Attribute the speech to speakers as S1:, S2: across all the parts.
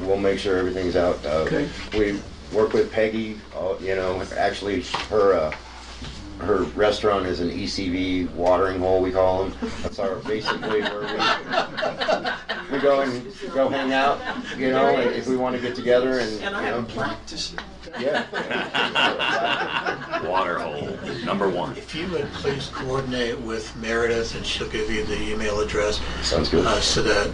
S1: we'll make sure everything's out. Uh,
S2: Okay.
S1: We work with Peggy, uh, you know, actually, her, uh, her restaurant is an ECV watering hole, we call them. That's our, basically where we, we go and, go hang out, you know, and if we want to get together and, you
S2: And I have
S1: know,
S2: practiced.
S1: yeah.
S3: Water hole, number one.
S4: If you would please coordinate with Meredith, and she'll give you the email address,
S1: Sounds good.
S4: uh, so that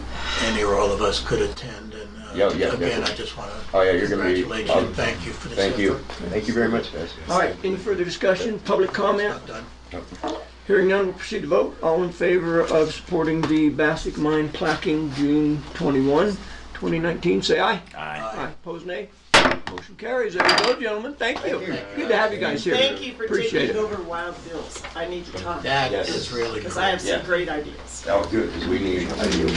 S4: any or all of us could attend. And uh,
S1: Yeah, yeah,
S4: Again,
S1: yeah.
S4: I just want
S1: Oh,
S4: to
S1: yeah, you're gonna be.
S4: congratulate you,
S1: oh,
S4: and thank you for this effort.
S1: Thank you. Thank you very much, guys.
S2: All right, any further discussion, public comment?
S4: Not done.
S2: Hearing none, we'll proceed to vote. All in favor of supporting the Bassick Mine placking June 21, 2019, say aye.
S3: Aye.
S2: Aye, opposed nay? Motion carries. There you go, gentlemen. Thank you. Good to have you guys here.
S5: Thank you for
S2: Appreciate
S5: taking
S2: it.
S5: over Wild Bill's. I need to talk,
S4: That
S1: Yes.
S4: is really
S5: because I
S4: great.
S5: have some
S3: Yeah.
S5: great ideas.
S1: Oh, good, because we need, I need.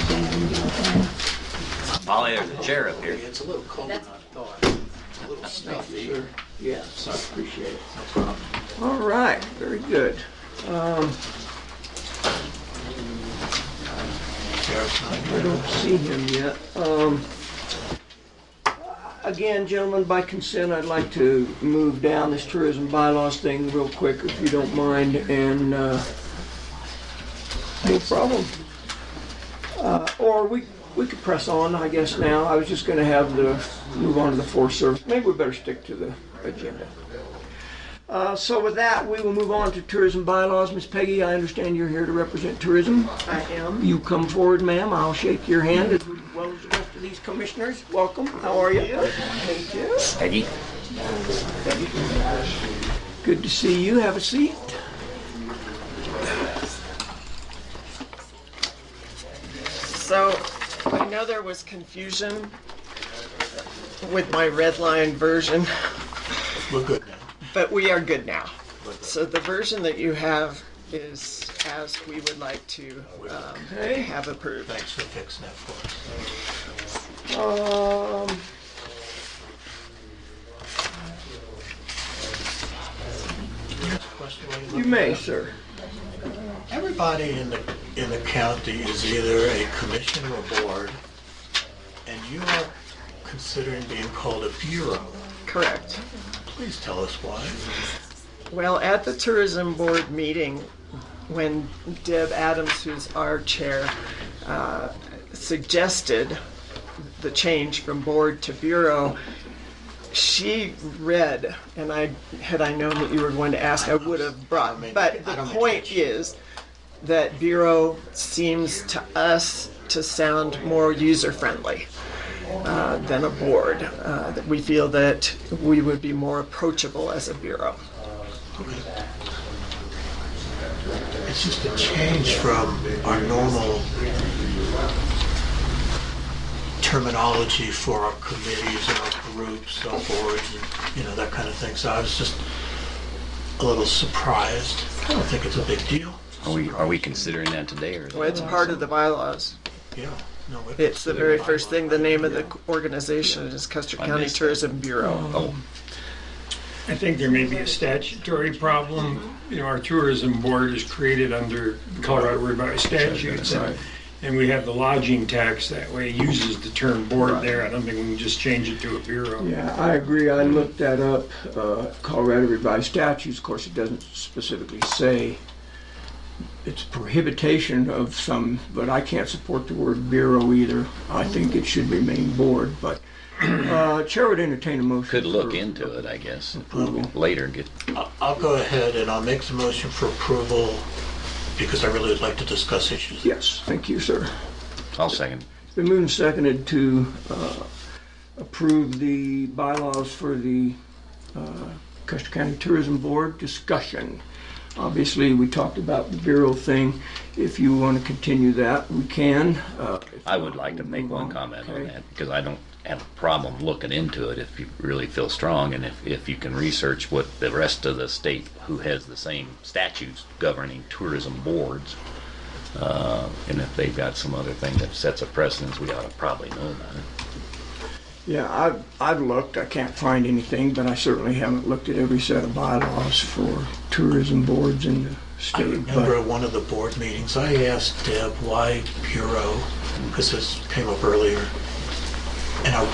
S3: Molly, there's a chair up here.
S4: It's a little cold, than I thought. It's a little stuffy.
S2: Yes, I appreciate it.
S4: No problem.
S2: All right, very good. Um,
S4: Sheriff's not
S2: I
S4: here.
S2: don't see him yet. Um, Again, gentlemen, by consent, I'd like to move down this tourism bylaws thing real quick, if you don't mind, and, uh, no problem. Uh, Or we, we could press on, I guess, now. I was just gonna have the, move on to the Forest Service. Maybe we better stick to the agenda. Uh, So with that, we will move on to tourism bylaws. Miss Peggy, I understand you're here to represent tourism.
S5: I am.
S2: You come forward, ma'am, I'll shake your hand as well as the rest of these commissioners. Welcome, how are you? Thank you.
S3: Peggy?
S2: Good to see you, have a seat.
S5: So I know there was confusion with my red line version,
S4: We're good now.
S5: but we are good now. So the version that you have is as we would like to um,
S2: Okay.
S5: have approved.
S4: Thanks for fixing that for us.
S2: Um,
S4: Question while
S2: you
S4: look it
S2: may,
S4: up.
S2: sir.
S4: Everybody in the, in the county is either a commission or board, and you are considering being called a bureau.
S5: Correct.
S4: Please tell us why.
S5: Well, at the tourism board meeting, when Deb Adams, who's our chair, uh, suggested the change from board to bureau, she read, and I had I known that you were going to ask, I would have brought. But the point is that bureau seems to us to sound more user friendly uh, than a board. Uh, that we feel that we would be more approachable as a bureau.
S4: It's just a change from our normal terminology for our committees and our groups, our boards, and, you know, that kind of thing. So I was just a little surprised. I don't think it's a big deal.
S3: Are we, are we considering that today or? is it-
S5: Well, it's part of the bylaws.
S4: Yeah, no. it-
S5: It's the very first thing, the name of the organization is Custer
S3: I
S5: County
S3: missed that.
S5: Tourism Bureau.
S3: Oh,
S6: I think there may be a statutory problem. You know, our tourism board is created under Colorado revised statutes, and-
S3: Right.
S6: and we have the lodging tax that way, It uses the term board there. I don't think we can just change it to a bureau.
S2: Yeah, I agree, I looked that up, uh, Colorado revised statutes, of course, it doesn't specifically say it's prohibition of some, but I can't support the word bureau either. I think it should remain board, but, uh, Chair would entertain a motion.
S3: could look
S2: for
S3: into it, I guess.
S2: Approval.
S3: Later, get,
S4: I'll go ahead and I'll make the motion for approval because I really would like to discuss issues.
S2: Yes, thank you, sir.
S3: I'll second.
S2: It's been moved and seconded to uh, approve the bylaws for the uh, Custer County Tourism Board discussion. Obviously, we talked about the Bureau thing. If you want to continue that, we can. Uh, if
S3: I would like to
S2: not,
S3: make
S2: we'll
S3: one
S2: move
S3: comment on
S2: Okay.
S3: that because I don't have a problem looking into it if you really feel strong and if, if you can research what the rest of the state who has the same statutes governing tourism boards. Uh, and if they've got some other thing that sets a precedence, we ought to probably know about it.
S2: Yeah, I've, I've looked, I can't find anything, but I certainly haven't looked at every set of bylaws for tourism boards in the
S4: I
S2: state.
S4: remember at one of the board meetings, I asked Deb why Bureau, because this came up earlier. And I